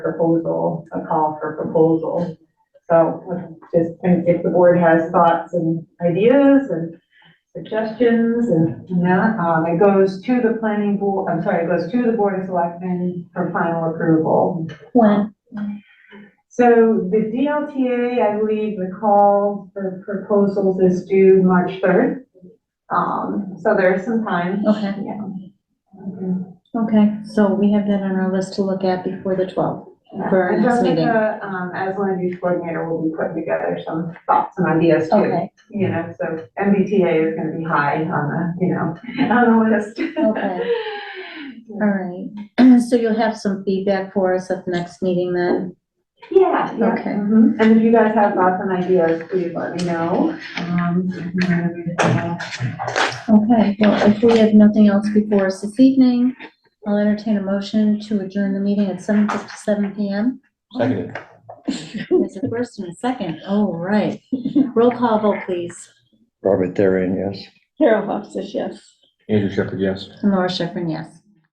proposal, a call for proposal. So just, and if the board has thoughts and ideas and suggestions and, Yeah, um, it goes to the planning board, I'm sorry, it goes to the board of selectmen for final approval. When? So the DLTA, I believe the call for proposals is due March third. Um, so there's some time. Okay, Yeah. okay, so we have that on our list to look at before the twelfth. For our And next meeting. Jessica, um, as land use coordinator, will be putting together some thoughts and ideas too. Okay, You know, so MBTA is gonna be high on the, you know, on the list. Okay. all right. So you'll have some feedback for us at the next meeting then? Yeah, yeah. Okay. mhm. And if you guys have thoughts and ideas, please let me know. Um, Okay, well, if we have nothing else before us this evening, I'll entertain a motion to adjourn the meeting at seven fifty-seven PM. Seconded. There's a first and a second, all right. Roll call vote, please. Robert Therin, yes. Carol Hofstas, yes. Andrew Shepherd, yes. Laura Schifrin, yes.